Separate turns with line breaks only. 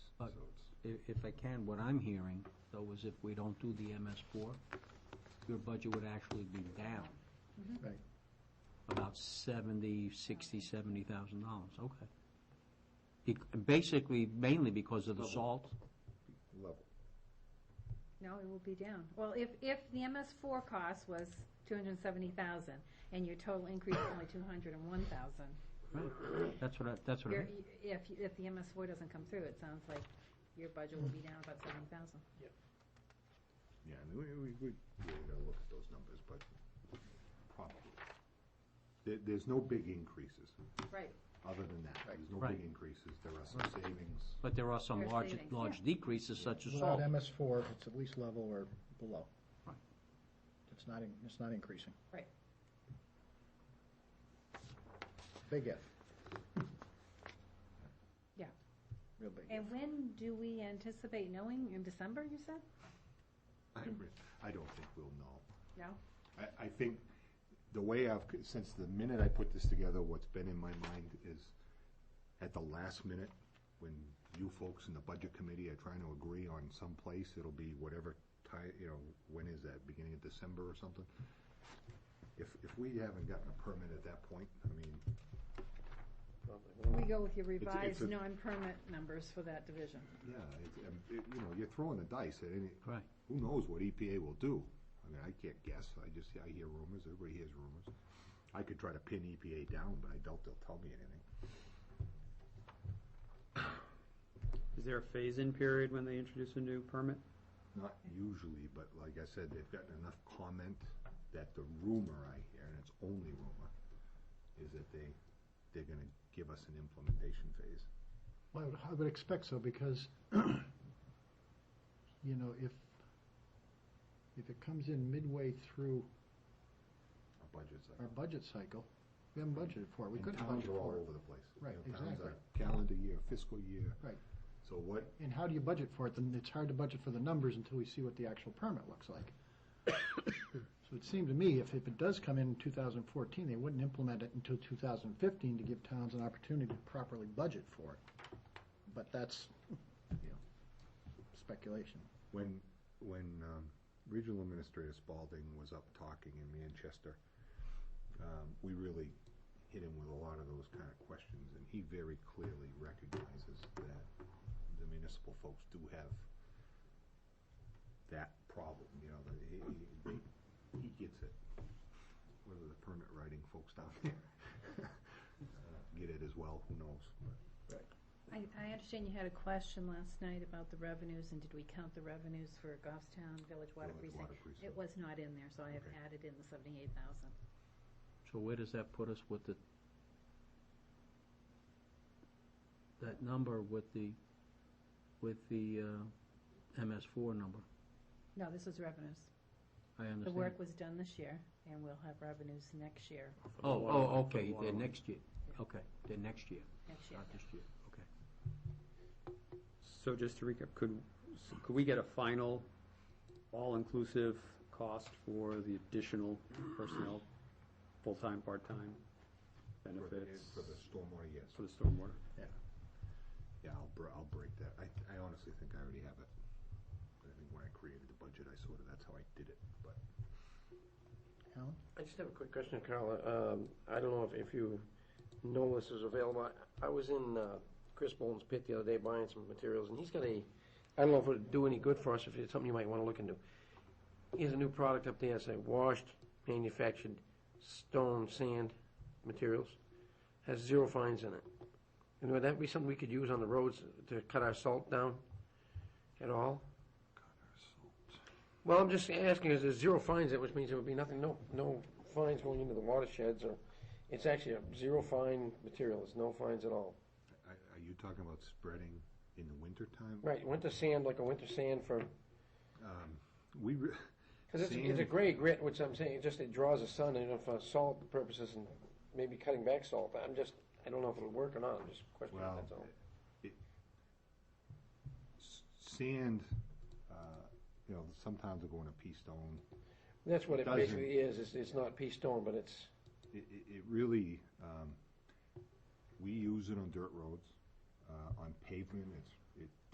i- if I can, what I'm hearing, though, is if we don't do the MS four, your budget would actually be down.
Right.
About seventy, sixty, seventy thousand dollars, okay. Bec- Basically, mainly because of the salt,
level.
No, it will be down. Well, if, if the MS four cost was two hundred and seventy thousand, and your total increase is only two hundred and one thousand,
that's what I, that's what I,
your, if, if the MS four doesn't come through, it sounds like your budget will be down about seventy thousand.
Yeah, I mean, we, we, we really gotta look at those numbers, but probably. There, there's no big increases,
Right.
other than that. There's no
Right.
big increases. There are some savings.
but there are some
Your
large,
savings,
large decreases such as
Without
salt.
MS four, it's at least level or below.
Right.
It's not, in- it's not increasing.
Right.
Big if,
Yeah.
real big if.
And when do we anticipate knowing? In December, you said?
I, re- I don't think we'll know.
No?
I, I think the way I've, c- since the minute I put this together, what's been in my mind is at the last minute, when you folks in the budget committee are trying to agree on some place, it'll be whatever time, you know, when is that, beginning of December or something? If, if we haven't gotten a permit at that point, I mean,
We go with your
it's
revised
a-
non-permit numbers for that division.
yeah, it's, um, it- you know, you're throwing the dice at any,
Right.
who knows what EPA will do? I mean, I can't guess, I just, I hear rumors, everybody hears rumors. I could try to pin EPA down, but I doubt they'll tell me anything.
Is there a phase-in period when they introduce a new permit?
Not usually, but like I said, they've gotten enough comment that the rumor I hear, and it's only rumor, is that they, they're gonna give us an implementation phase.
Well, I would, I would expect so because, you know, if, if it comes in midway through
Our budget's
our
like.
budget cycle, we haven't budgeted for it, we
and
couldn't
towns
budget
are all
for it.
over the place. You
Right,
know, towns
exactly.
are Calendar year, fiscal year.
Right.
So what,
And how do you budget for it? Then it's hard to budget for the numbers until we see what the actual permit looks like. So it seemed to me if, if it does come in in two thousand fourteen, they wouldn't implement it until two thousand fifteen to give towns an opportunity to properly budget for it. But that's, you know, speculation.
when, when, um, Regional Administrator Spalding was up talking in Manchester, um, we really hit him with a lot of those kind of questions, and he very clearly recognizes that the municipal folks do have that problem, you know, that he, he, they- he gets it. Whether the permit writing folks down there uh, get it as well, who knows, but.
I, I understand you had a question last night about the revenues, and did we count the revenues for Goffstown Village Water
Village
Precinct?
Water Precinct.
It was not in there, so I have
Okay.
added in the seventy-eight thousand.
So where does that put us with the, that number with the, with the MS four number?
No, this is revenues.
I
The
understand.
work was done this year, and we'll have revenues next year,
Oh, oh, okay,
For the
they're
water.
next year, okay, they're next year,
next year.
not this year, okay.
So just to recap, could, could we get a final, all-inclusive cost for the additional personnel, full-time, part-time
for the-
benefits
For the stormwater, yes,
for the stormwater?
yeah, I'll, br- I'll break that, I, I honestly think I already have it. I think when I created the budget, I sort of, that's how I did it, but.
Alan?
I just have a quick question, Carla. Um, I don't know if, if you know this is available. I, I was in uh, Chris Bolin's pit the other day buying some materials, and he's got a. I don't know if it would do any good for us. If it's something you might want to look into, he has a new product up there. It's a washed, manufactured stone sand materials. Has zero fines in it. And would that be something we could use on the roads to cut our salt down at all? Well, I'm just asking, is there's zero fines, which means there would be nothing, no, no fines going into the watersheds, or, it's actually a zero fine material, there's no fines at all.
Are are you talking about spreading in the wintertime? Um,
Right, winter sand, like a winter sand for,
We, re-
because it's, it's a
Sand.
gray grit, which I'm saying, it just, it draws the sun, and for uh, salt purposes, and maybe cutting back salt, I'm just, I don't know if it'll work or not, I'm just questioning,
well,
that's all.
it- s- sand, uh, you know, sometimes they go in a pea stone.
That's what it
doesn't-
basically is, it's, it's not pea stone, but it's,
It, it- it really, um, we use it on dirt roads, uh, on pavement, it's